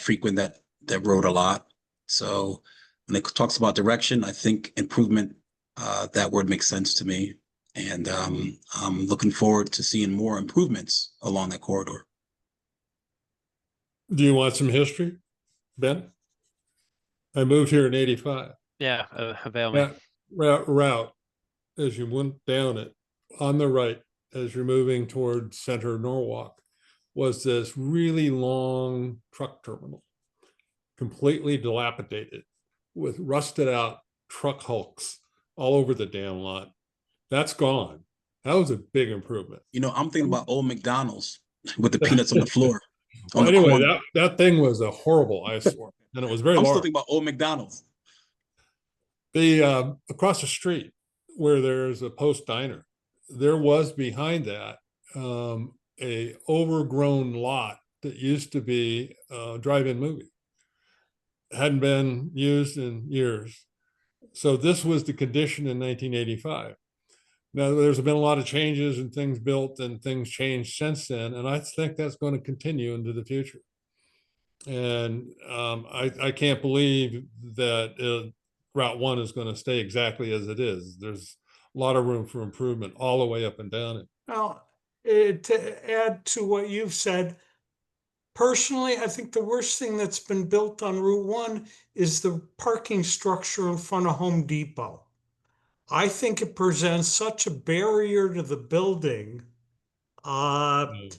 frequent that, that road a lot. So when it talks about direction, I think improvement, uh, that word makes sense to me. And, um, I'm looking forward to seeing more improvements along that corridor. Do you want some history, Ben? I moved here in eighty-five. Yeah, uh, avail me. That route, route, as you went down it, on the right, as you're moving toward center Norwalk, was this really long truck terminal, completely dilapidated with rusted out truck hulks all over the damn lot. That's gone. That was a big improvement. You know, I'm thinking about old McDonald's with the peanuts on the floor. Oh, on the Anyway, corner. that, that thing was a horrible eyesore and it was very I'm still large. thinking about old McDonald's. The uh, across the street where there's a post diner, there was behind that um, a overgrown lot that used to be a drive-in movie. Hadn't been used in years. So this was the condition in 1985. Now there's been a lot of changes and things built and things changed since then, and I think that's going to continue into the future. And um, I, I can't believe that uh, Route One is going to stay exactly as it is. There's a lot of room for improvement all the way up and down it. Well, eh, to add to what you've said, personally, I think the worst thing that's been built on Route One is the parking structure in front of Home Depot. I think it presents such a barrier to the building. Uh, Mm.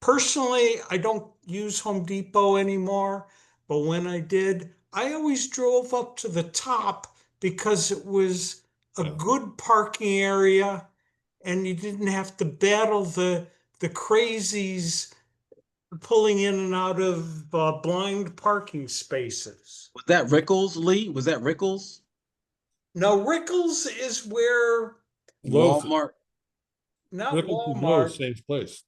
personally, I don't use Home Depot anymore, but when I did, I always drove up to the top because it was a Yeah. good parking area and you didn't have to battle the the crazies pulling in and out of uh, blind parking spaces. Was that Rickles, Lee? Was that Rickles? Now, Rickles is where Lowe's- Walmart? not Rickles is Lowe's, Walmart. same place.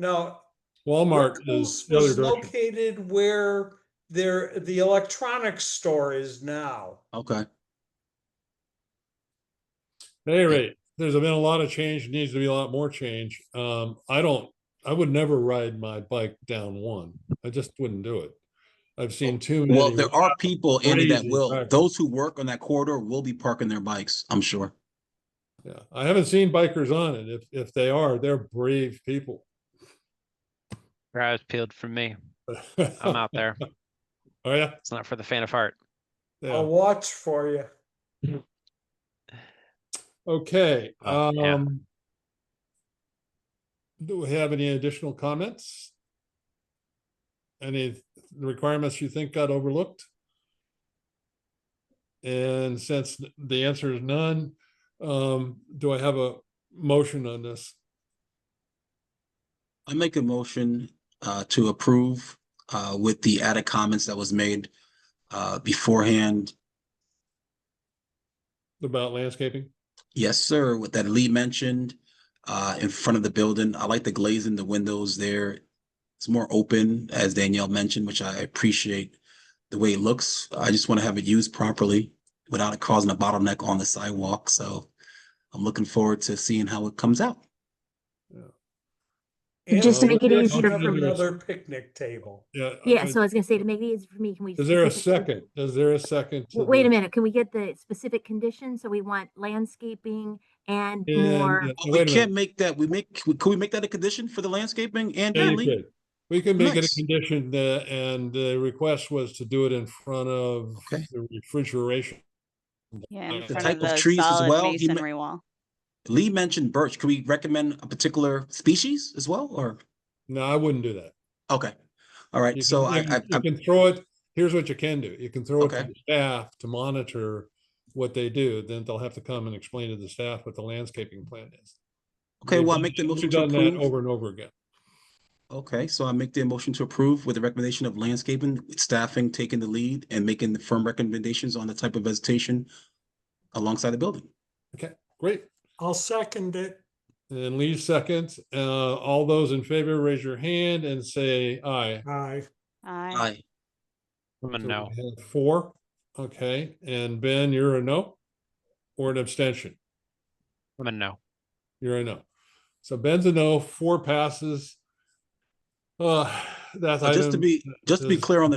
No, Walmart is Rickles the other was direction. located where there the electronics store is now. Okay. At any rate, there's been a lot of change, needs to be a lot more change. Um, I don't, I would never ride my bike down one. I just wouldn't do it. I've seen too many. Oh, Well, there are people, Andy, that Crazy will, traffic. those who work on that corridor will be parking their bikes, I'm sure. Yeah, I haven't seen bikers on it. If, if they are, they're brave people. Your eyes peeled from me. I'm out there. Oh, yeah. It's not for the faint of heart. Yeah. I'll watch for you. Okay, Uh, yeah. um. Do we have any additional comments? Any requirements you think got overlooked? And since the answer is none, um, do I have a motion on this? I make a motion uh to approve uh with the added comments that was made uh beforehand. About landscaping? Yes, sir, with that Lee mentioned uh in front of the building. I like the glazing, the windows there. It's more open, as Danielle mentioned, which I appreciate the way it looks. I just want to have it used properly without it causing a bottleneck on the sidewalk. So I'm looking forward to seeing how it comes out. And Just to we'll make it get easier you for me. Another picnic table. Yeah. Yeah, uh, so I was gonna say, to make it easy for me, can we? Is there a specific- second? Is there a second? to w- Wait the- a minute, can we get the specific conditions? So we want landscaping and And, more. uh, But wait a we minute. can't make that, we make, we- could we make that a condition for the landscaping and Yeah, you Lee? could. We can make it a Nice. condition that, and the request was to do it in front of Okay. the refrigeration. Yeah, Uh, in the front type of of the trees as well, solid he ma- masonry wall. Lee mentioned birch. Can we recommend a particular species as well, or? No, I wouldn't do that. Okay, all right, You so can- I, you can- I, You I- can throw it, here's what you can do. You can throw it to Okay. the staff to monitor what they do, then they'll have to come and explain to the staff what the landscaping plan is. okay, We've well, I done- make the we've motion to done that approve. Over and over again. Okay, so I make the motion to approve with the recommendation of landscaping, with staffing taking the lead and making the firm recommendations on the type of vegetation alongside the building. Great. I'll second it. And Lee seconds. Uh, all those in favor, raise your hand and say aye. Aye. I, Aye. I'm a So we no. have Four, okay, and Ben, you're a no? Or an abstention? I'm a no. You're a no. So Ben's a no, four passes. Uh, that's. But Just to item- be, just to be is- clear on the